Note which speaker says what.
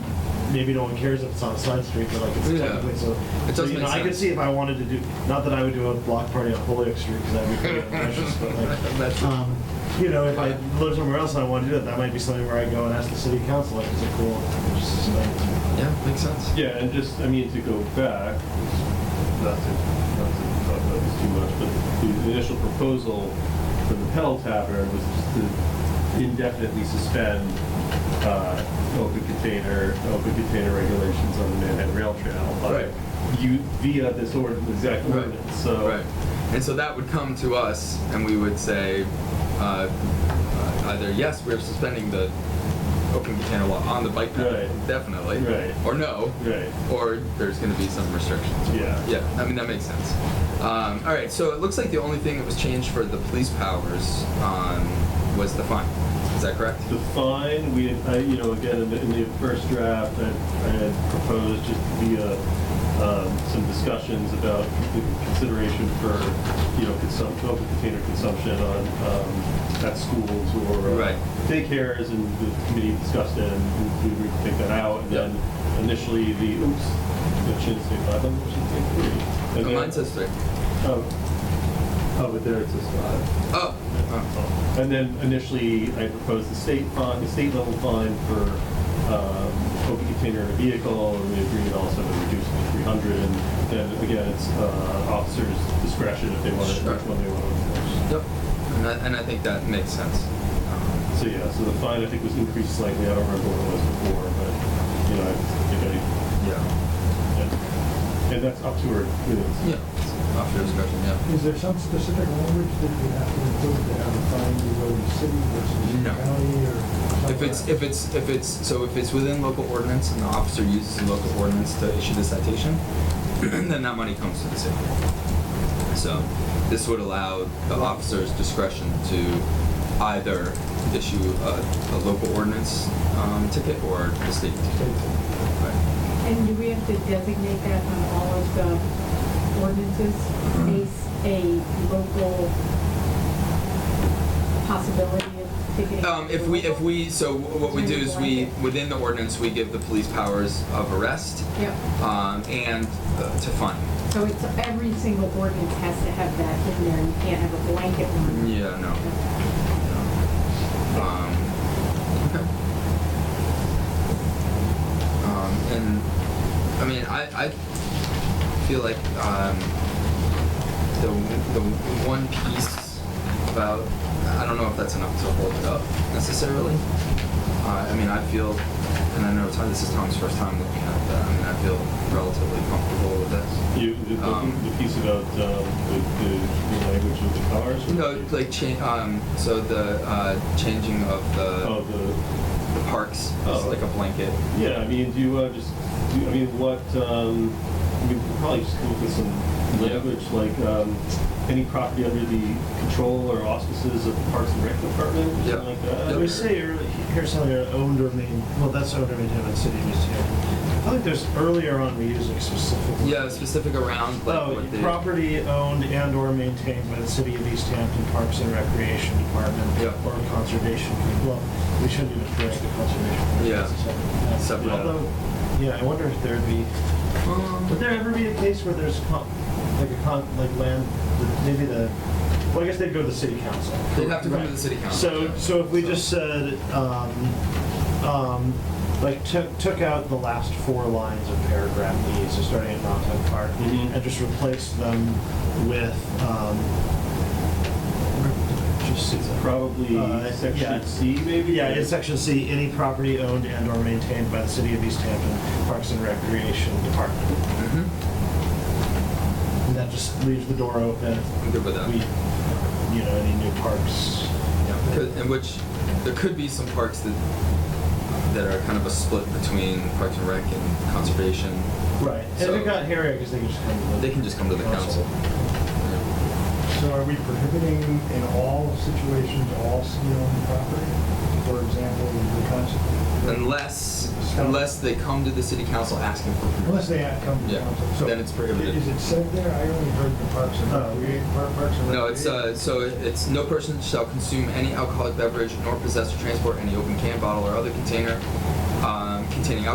Speaker 1: maybe no one cares if it's on a side street, but like it's
Speaker 2: Yeah.
Speaker 1: technically so.
Speaker 2: It
Speaker 1: so,
Speaker 2: does
Speaker 1: you know,
Speaker 2: make
Speaker 1: I could
Speaker 2: sense.
Speaker 1: see if I wanted to do, not that I would do a block party on Holyoke Street because that'd be pretty precious, but like,
Speaker 2: That's-
Speaker 1: um, you know, if I
Speaker 2: But-
Speaker 1: live somewhere else and I want to do that, that might be something where I go and ask the city council, like, is it cool? Just, like,
Speaker 2: Yeah, makes sense.
Speaker 3: Yeah, and just, I mean, to go back, not to, not to talk about this too much, but the initial proposal for the Pell Tavern was just to indefinitely suspend uh, open container, open container regulations on the Manhattan Rail Trail. by
Speaker 2: Right.
Speaker 3: You, via this ordinance, exact
Speaker 2: Right.
Speaker 3: ordinance, so.
Speaker 2: Right. And so that would come to us, and we would say uh, uh, either yes, we're suspending the open container law on the bike path,
Speaker 3: Right.
Speaker 2: definitely,
Speaker 3: Right.
Speaker 2: or no,
Speaker 3: Right,
Speaker 2: or there's going to be some restrictions.
Speaker 3: yeah.
Speaker 2: Yeah, I mean, that makes sense. Um, all right, so it looks like the only thing that was changed for the police powers um, was the fine. Is that correct?
Speaker 3: The fine, we, had- I, you know, again, in the, in the first draft, I, I had proposed just via, um, some discussions about the consideration for, you know, consum, open container consumption on, um, at schools or uh,
Speaker 2: Right.
Speaker 3: daycares, and the committee discussed it, and we we agreed to take that out, and
Speaker 2: Yeah.
Speaker 3: then initially the, oops, that should say five hundred, should say three. And
Speaker 2: Oh,
Speaker 3: then-
Speaker 2: mine says three.
Speaker 3: Oh, oh, but there it says five.
Speaker 2: Oh. oh.
Speaker 3: And then initially, I proposed the state fine, the state level fine for um, open container in a vehicle, and we agreed also to reduce it to 300. And then again, it's uh, officers' discretion if they want to,
Speaker 2: Sure.
Speaker 3: which one they want to
Speaker 2: Yep.
Speaker 3: enforce.
Speaker 2: And I, and I think that makes sense. Um,
Speaker 3: So yeah, so the fine I think was increased slightly. I don't remember what it was before, but you know, I think I,
Speaker 2: yeah.
Speaker 3: yeah. and that's up to her. you know, it's-
Speaker 2: Yeah. Off your discretion. Yeah.
Speaker 4: Is there some specific language that you have to include to have a fine you go to city versus
Speaker 2: No.
Speaker 4: county or something?
Speaker 2: If it's if it's if it's so if it's within local ordinance and the officer uses the local ordinance to issue the citation, then that money comes to the city. So this would allow the officer's discretion to either issue a, a local ordinance um, ticket or the state ticket. Right.
Speaker 5: And do we have to designate that on all of the ordinances, a, a local possibility of ticketing?
Speaker 2: Um, if we, if we, so what we do is we, within the ordinance, we give the police powers of arrest,
Speaker 5: Yep,
Speaker 2: um, and uh, to fund.
Speaker 5: so it's, every single ordinance has to have that in there, you can't have a blanket one.
Speaker 2: Yeah, no. no. Um, okay. Um, and, I mean, I, I feel like, um, the, the one piece about, I don't know if that's enough to hold it up necessarily. Uh, I mean, I feel, and I know Tom, this is Tom's first time looking at that, I mean, I feel relatively comfortable with this.
Speaker 3: You, the, the,
Speaker 2: Um,
Speaker 3: the piece about um, the, the, the language of the cars. or-
Speaker 2: No, like change. Um, so the uh, changing of the
Speaker 3: oh, the
Speaker 2: the parks is
Speaker 3: Oh.
Speaker 2: like a blanket.
Speaker 3: Yeah, I mean, do you uh, just, do you, I mean, what, um, I mean, we'll probably just come up with some
Speaker 2: Yeah.
Speaker 3: language, like, um, any property under the control or auspices of the Parks and Rec Department, or
Speaker 2: Yeah.
Speaker 3: something like that?
Speaker 2: Yeah.
Speaker 3: Or
Speaker 1: We
Speaker 3: s-
Speaker 1: say earl- here's something that owned or main, well, that's owned or maintained by the city of East Hampton. I think there's earlier on we use like specific.
Speaker 2: Yeah, specific around like
Speaker 1: Oh,
Speaker 2: what the
Speaker 1: property owned and or maintained by the city of East Hampton Parks and Recreation Department.
Speaker 2: Yeah.
Speaker 1: Or Conservation, Com- well, we shouldn't even correct the Conservation. Commission,
Speaker 2: Yeah.
Speaker 1: it's a separate-
Speaker 2: Separate.
Speaker 1: Although, yeah, I wonder if there'd be, would
Speaker 2: Um,
Speaker 1: there ever be a case where there's con, like a con, like land, maybe the, well, I guess they'd go to the city council.
Speaker 2: They'd have to come to
Speaker 1: Right.
Speaker 2: the city council,
Speaker 1: So,
Speaker 2: yeah.
Speaker 1: so if we just said, um, um, like took, took out the last four lines of paragraph E, so starting at Montauk Park,
Speaker 2: Mm-hmm.
Speaker 3: Mhm.
Speaker 1: and just replaced them with, um, where did I just see that?
Speaker 3: Probably
Speaker 1: Uh, yeah.
Speaker 3: section C, maybe?
Speaker 1: Yeah, in section C, any property owned and or maintained by the city of East Hampton Parks and Recreation Department.
Speaker 2: mhm.
Speaker 1: And that just leaves the door open.
Speaker 2: I'm good with that.
Speaker 1: We, you know, any new parks.
Speaker 2: Yeah, could, in which there could be some parks that that are kind of a split between Parks and Rec and conservation.
Speaker 1: Right, and
Speaker 2: So-
Speaker 1: they're not here, I guess they can just come to the.
Speaker 2: They can just come to the council.
Speaker 4: So are we prohibiting in all situations, all city-owned property? For example, the concept.
Speaker 2: Unless unless they come to the city council asking for permission.
Speaker 4: Unless they have come to
Speaker 2: Yeah,
Speaker 4: council. So
Speaker 2: then it's prohibited.
Speaker 4: Is it said there? I only heard the parks and
Speaker 1: Oh.
Speaker 4: recreation, parks and recreation.
Speaker 2: No, it's uh, so it- it's no person shall consume any alcoholic beverage nor possess or transport any open can, bottle, or other container um, containing alcohol.